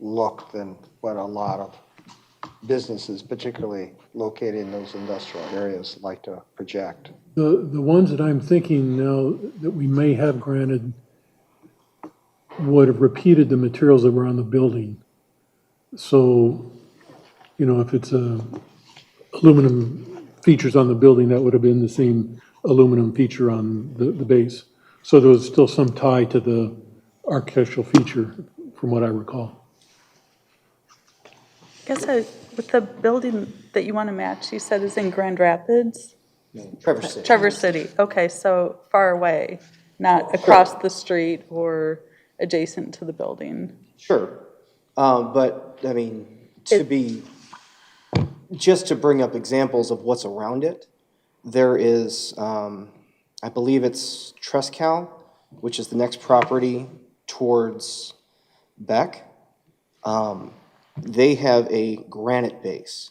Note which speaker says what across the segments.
Speaker 1: look than what a lot of businesses, particularly located in those industrial areas, like to project.
Speaker 2: The, the ones that I'm thinking now that we may have granted would have repeated the materials that were on the building. So, you know, if it's uh, aluminum features on the building, that would have been the same aluminum feature on the, the base. So there was still some tie to the architectural feature, from what I recall.
Speaker 3: Guess I, with the building that you want to match, you said is in Grand Rapids?
Speaker 1: Trevor City.
Speaker 3: Traverse City, okay, so far away, not across the street or adjacent to the building.
Speaker 4: Sure, um, but, I mean, to be, just to bring up examples of what's around it, there is, um, I believe it's Trescal, which is the next property towards Beck. Um, They have a granite base,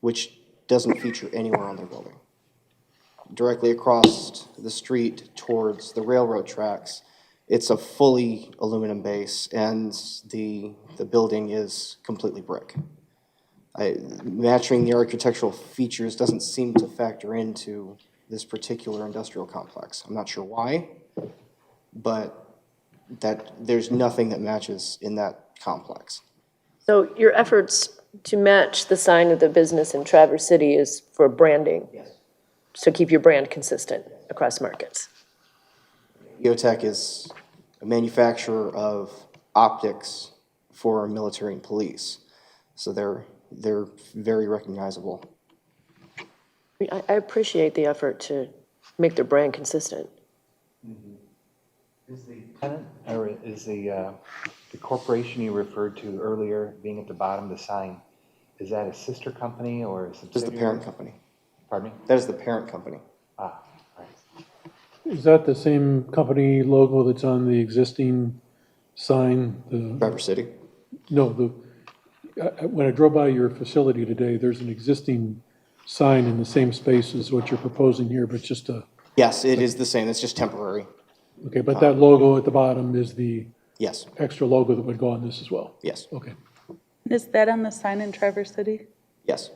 Speaker 4: which doesn't feature anywhere on their building. Directly across the street towards the railroad tracks, it's a fully aluminum base, and the, the building is completely brick. I, matching the architectural features doesn't seem to factor into this particular industrial complex. I'm not sure why, but that, there's nothing that matches in that complex.
Speaker 5: So your efforts to match the sign of the business in Traverse City is for branding? Yes. So keep your brand consistent across markets?
Speaker 4: EOTech is a manufacturer of optics for military and police, so they're, they're very recognizable.
Speaker 5: I, I appreciate the effort to make their brand consistent.
Speaker 6: Is the tenant, or is the, uh, the corporation you referred to earlier being at the bottom of the sign, is that a sister company or a
Speaker 4: This is the
Speaker 6: subsidiary?
Speaker 4: parent company.
Speaker 6: Pardon me?
Speaker 4: That is the parent company.
Speaker 6: Ah, all right.
Speaker 2: Is that the same company logo that's on the existing sign, the
Speaker 4: Driver City.
Speaker 2: No, the, I- I- when I drove by your facility today, there's an existing sign in the same space as what you're proposing here, but just a,
Speaker 4: Yes, it is the same. It's just temporary.
Speaker 2: okay, but that logo at the bottom is the
Speaker 4: Yes,
Speaker 2: extra logo that would go on this as well?
Speaker 4: yes,
Speaker 2: Okay.
Speaker 3: Is that on the sign in Traverse City?
Speaker 4: yes.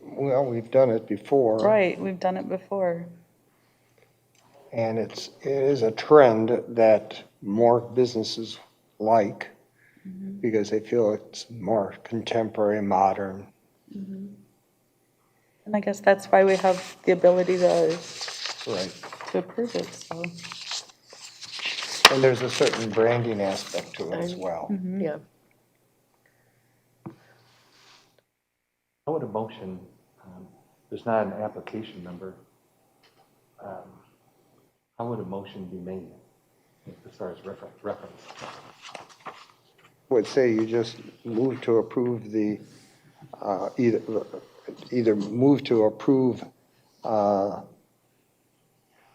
Speaker 1: Well, we've done it before.
Speaker 3: Right, we've done it before.
Speaker 1: And it's, it is a trend that more businesses like because they feel it's more contemporary, modern.
Speaker 3: And I guess that's why we have the ability to,
Speaker 1: Right.
Speaker 3: to approve it, so.
Speaker 1: And there's a certain branding aspect to it as well.
Speaker 5: Yeah.
Speaker 6: I would a motion, um, there's not an application number. Um, How would a motion be made as far as refer- reference?
Speaker 1: would say you just move to approve the, uh, either, either move to approve, uh,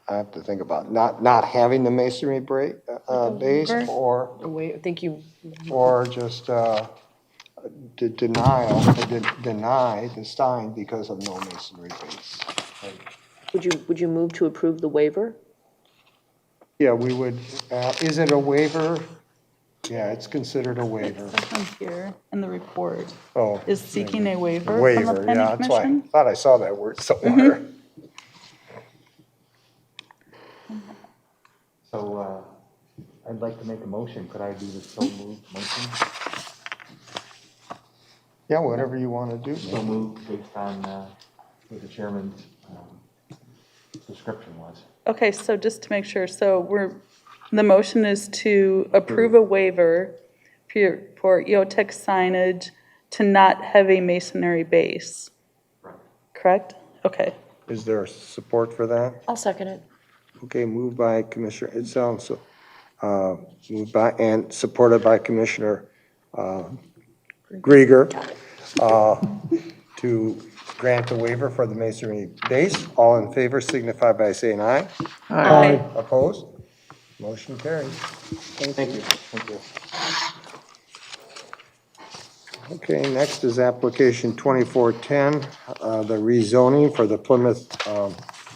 Speaker 1: I have to think about, not, not having the masonry break, uh, base,
Speaker 3: Waiver?
Speaker 1: or,
Speaker 5: Wait, I think you,
Speaker 1: or just, uh, de- denial, de- deny the sign because of no masonry base.
Speaker 5: would you, would you move to approve the waiver?
Speaker 1: Yeah, we would, uh, is it a waiver? Yeah, it's considered a waiver.
Speaker 3: This one here in the report
Speaker 1: Oh,
Speaker 3: is seeking a waiver from the
Speaker 1: waiver, yeah,
Speaker 3: planning
Speaker 1: that's why, I
Speaker 3: commission.
Speaker 1: thought I saw that word somewhere.
Speaker 6: So uh, I'd like to make a motion. Could I do the so moved motion?
Speaker 1: Yeah, whatever you want to do.
Speaker 6: So moved based on uh, what the chairman's um, description was.
Speaker 3: Okay, so just to make sure, so we're, the motion is to approve a waiver for for EOTech signage to not have a masonry base,
Speaker 6: Right.
Speaker 3: correct? Okay.
Speaker 1: Is there support for that?
Speaker 5: I'll second it.
Speaker 1: Okay, moved by Commissioner Itzel, so, uh, moved by, and supported by Commissioner uh, Grieger uh, to grant the waiver for the masonry base. All in favor signify by saying aye.
Speaker 3: Aye.
Speaker 1: Opposed? Motion carries.
Speaker 4: Thank you. Thank you.
Speaker 1: Okay, next is application 2410, uh, the rezoning for the Plymouth um,